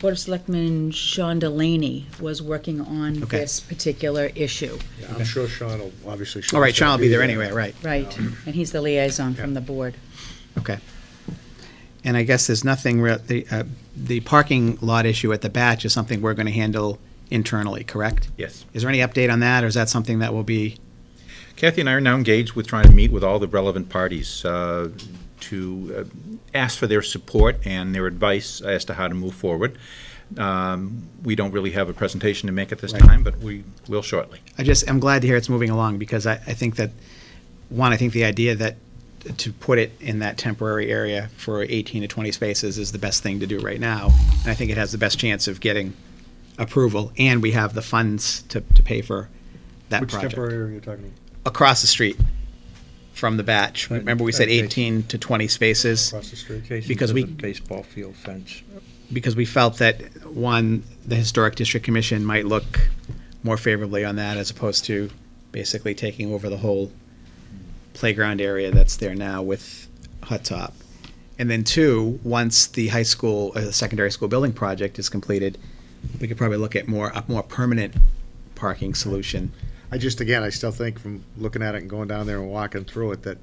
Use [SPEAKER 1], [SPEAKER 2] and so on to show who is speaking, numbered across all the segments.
[SPEAKER 1] Board of Selectman Sean Delaney was working on
[SPEAKER 2] Okay.
[SPEAKER 1] this particular issue,
[SPEAKER 3] Yeah, I'm sure Sean will, obviously.
[SPEAKER 2] All right, Sean will be there anyway, right,
[SPEAKER 1] right? And he's the liaison from the board.
[SPEAKER 2] okay. And I guess there's nothing, rea- the, uh, the parking lot issue at the batch is something we're gonna handle internally, correct?
[SPEAKER 4] Yes.
[SPEAKER 2] Is there any update on that, or is that something that will be,
[SPEAKER 4] Kathy and I are now engaged with trying to meet with all the relevant parties uh, to uh, ask for their support and their advice as to how to move forward. Um, We don't really have a presentation to make at this
[SPEAKER 2] Right.
[SPEAKER 4] time, but we will shortly.
[SPEAKER 2] I just, I'm glad to hear it's moving along, because I, I think that, one, I think the idea that, to put it in that temporary area for eighteen to twenty spaces is the best thing to do right now. And I think it has the best chance of getting approval, and we have the funds to, to pay for that
[SPEAKER 3] Which
[SPEAKER 2] project.
[SPEAKER 3] temporary area are you talking
[SPEAKER 2] across the street from the batch. Remember, we said
[SPEAKER 5] Okay.
[SPEAKER 2] 18 to 20 spaces
[SPEAKER 3] across the street?
[SPEAKER 2] Because we-
[SPEAKER 5] Baseball field fence.
[SPEAKER 2] because we felt that, one, the Historic District Commission might look more favorably on that as opposed to basically taking over the whole playground area that's there now with Hut Top. And then, two, once the high school, uh, the secondary school building project is completed, we could probably look at more, a more permanent parking solution.
[SPEAKER 3] I just, again, I still think from looking at it and going down there and walking through it, that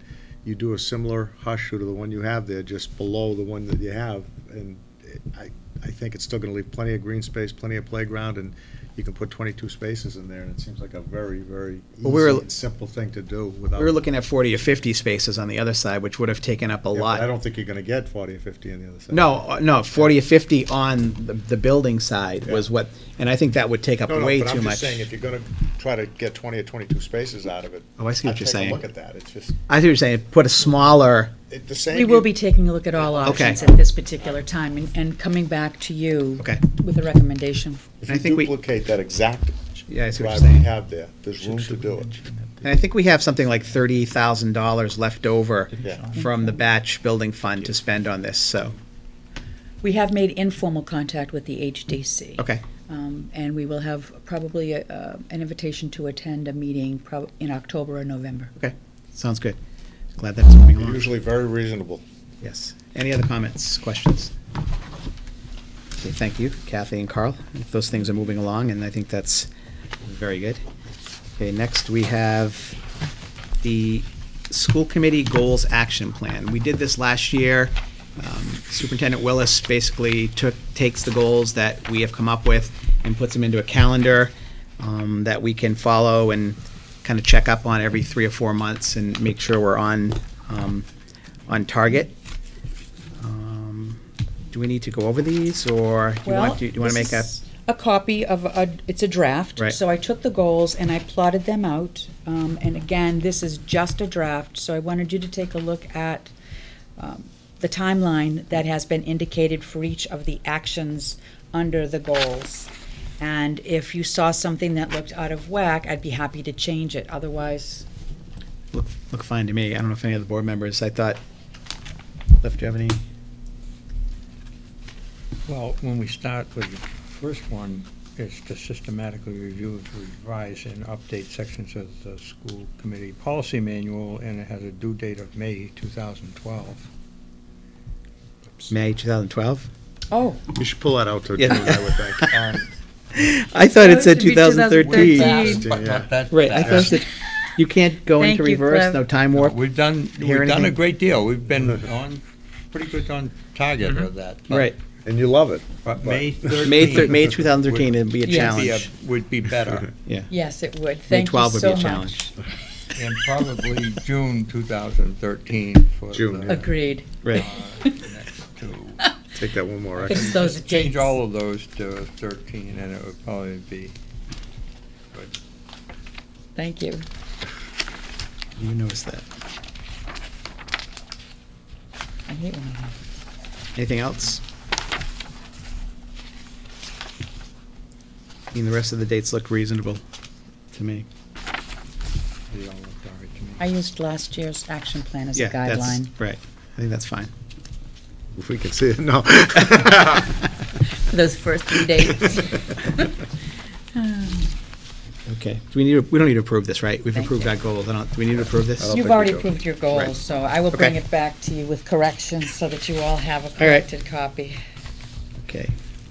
[SPEAKER 3] you do a similar hush to the one you have there, just below the one that you have. And it- I, I think it's still gonna leave plenty of green space, plenty of playground, and you can put twenty-two spaces in there, and it seems like a very, very
[SPEAKER 2] Well, we were-
[SPEAKER 3] easy and simple thing to do without.
[SPEAKER 2] We were looking at 40 or 50 spaces on the other side, which would have taken up a
[SPEAKER 3] Yeah, but
[SPEAKER 2] lot.
[SPEAKER 3] I don't think you're gonna get forty or fifty on the other side.
[SPEAKER 2] No, uh, no, forty or fifty on the, the building side was
[SPEAKER 3] Yeah.
[SPEAKER 2] what, and I think that would take up
[SPEAKER 3] No, no,
[SPEAKER 2] way
[SPEAKER 3] but
[SPEAKER 2] too
[SPEAKER 3] I'm just
[SPEAKER 2] much.
[SPEAKER 3] saying, if you're gonna try to get twenty or twenty-two spaces out of it.
[SPEAKER 2] Oh, I see what
[SPEAKER 3] I'd
[SPEAKER 2] you're
[SPEAKER 3] take a
[SPEAKER 2] saying.
[SPEAKER 3] Look at that, it's just,
[SPEAKER 2] I see what you're saying, put a smaller,
[SPEAKER 3] it, the same.
[SPEAKER 1] We will be taking a look at all options
[SPEAKER 2] Okay.
[SPEAKER 1] at this particular time and, and coming back to you
[SPEAKER 2] Okay.
[SPEAKER 1] with a recommendation.
[SPEAKER 3] If
[SPEAKER 2] I think
[SPEAKER 3] you
[SPEAKER 2] we-
[SPEAKER 3] duplicate that exact
[SPEAKER 2] Yeah, I see what you're
[SPEAKER 3] driveway you
[SPEAKER 2] saying.
[SPEAKER 3] have there, there's room to do it.
[SPEAKER 2] and I think we have something like thirty thousand dollars left over
[SPEAKER 3] Yeah.
[SPEAKER 2] from the batch building fund to spend on this, so,
[SPEAKER 1] We have made informal contact with the HDC.
[SPEAKER 2] okay,
[SPEAKER 1] Um, And we will have probably a- uh, an invitation to attend a meeting prob- in October or November.
[SPEAKER 2] okay, sounds good. Glad that it's moving
[SPEAKER 3] They're
[SPEAKER 2] along,
[SPEAKER 3] Usually very reasonable.
[SPEAKER 2] yes. Any other comments, questions? Okay, thank you, Kathy and Carl, if those things are moving along, and I think that's very good. Okay, next we have the school committee goals action plan. We did this last year. Um, Superintendent Willis basically took, takes the goals that we have come up with and puts them into a calendar um, that we can follow and kind of check up on every three or four months and make sure we're on, um, on target. Um, Do we need to go over these, or do you
[SPEAKER 1] Well,
[SPEAKER 2] want, do you want to
[SPEAKER 1] this
[SPEAKER 2] make a?
[SPEAKER 1] is A copy of, a. it's a draft.
[SPEAKER 2] Right.
[SPEAKER 1] So I took the goals and I plotted them out. Um, And again, this is just a draft, so I wanted you to take a look at um, the timeline that has been indicated for each of the actions under the goals. And if you saw something that looked out of whack, I'd be happy to change it. Otherwise,
[SPEAKER 2] look, look fine to me. I don't know if any of the board members, I thought, Cliff, do you have any?
[SPEAKER 5] Well, when we start with the first one, is to systematically review, revise, and update sections of the school committee policy manual, and it has a due date of May 2012.
[SPEAKER 2] May 2012?
[SPEAKER 1] oh,
[SPEAKER 3] You should pull that out to
[SPEAKER 2] Yeah.
[SPEAKER 3] June, I would think.
[SPEAKER 2] I thought
[SPEAKER 1] Oh,
[SPEAKER 2] it
[SPEAKER 1] it
[SPEAKER 2] said
[SPEAKER 1] should be
[SPEAKER 2] 2013.
[SPEAKER 1] 2013.
[SPEAKER 3] Fast,
[SPEAKER 5] But
[SPEAKER 3] yeah.
[SPEAKER 5] not that
[SPEAKER 2] Right, I thought it
[SPEAKER 5] fast.
[SPEAKER 2] said, you can't go
[SPEAKER 1] Thank
[SPEAKER 2] into
[SPEAKER 1] you,
[SPEAKER 2] reverse,
[SPEAKER 1] Cliff.
[SPEAKER 2] no time warp.
[SPEAKER 5] We've done,
[SPEAKER 2] hear
[SPEAKER 5] we've done a
[SPEAKER 2] anything?
[SPEAKER 5] great deal. We've been on, pretty good on target with that. but-
[SPEAKER 2] Mm-hmm. Right.
[SPEAKER 3] And you love it.
[SPEAKER 5] But May
[SPEAKER 2] May, thir-
[SPEAKER 5] 13
[SPEAKER 2] May 2013 would be a
[SPEAKER 1] Yes.
[SPEAKER 5] would be a-
[SPEAKER 2] challenge.
[SPEAKER 5] would be better,
[SPEAKER 1] yes, it would. Thank you
[SPEAKER 2] 12 would be
[SPEAKER 1] so
[SPEAKER 2] a
[SPEAKER 1] much.
[SPEAKER 2] challenge.
[SPEAKER 5] and probably June 2013 for
[SPEAKER 3] June,
[SPEAKER 5] the
[SPEAKER 3] yeah.
[SPEAKER 1] Agreed.
[SPEAKER 2] Right.
[SPEAKER 5] next two.
[SPEAKER 3] Take that one more. I
[SPEAKER 1] Fix those
[SPEAKER 5] Change
[SPEAKER 1] dates.
[SPEAKER 5] all of those to 13, and it would probably be,
[SPEAKER 1] Thank you.
[SPEAKER 2] You noticed that.
[SPEAKER 1] I hate when I
[SPEAKER 2] Anything else? I mean, the rest of the dates look reasonable to me.
[SPEAKER 5] they all look all right to me.
[SPEAKER 1] I used last year's action plan as a
[SPEAKER 2] Yeah, that's-
[SPEAKER 1] guideline.
[SPEAKER 2] Right, I think that's fine.
[SPEAKER 3] If we can see it, no.
[SPEAKER 1] Those first three dates.
[SPEAKER 2] Okay, do we need, to- we don't need to approve this, right? We've
[SPEAKER 1] Thank
[SPEAKER 2] approved
[SPEAKER 1] you.
[SPEAKER 2] our goals, I don't, do we need to approve this?
[SPEAKER 3] I don't
[SPEAKER 1] You've
[SPEAKER 3] think we
[SPEAKER 1] already
[SPEAKER 3] do.
[SPEAKER 1] approved your goals, so I will bring
[SPEAKER 2] Okay.
[SPEAKER 1] it back to you with corrections so that you all have a
[SPEAKER 2] right.
[SPEAKER 1] corrected copy.
[SPEAKER 2] Okay,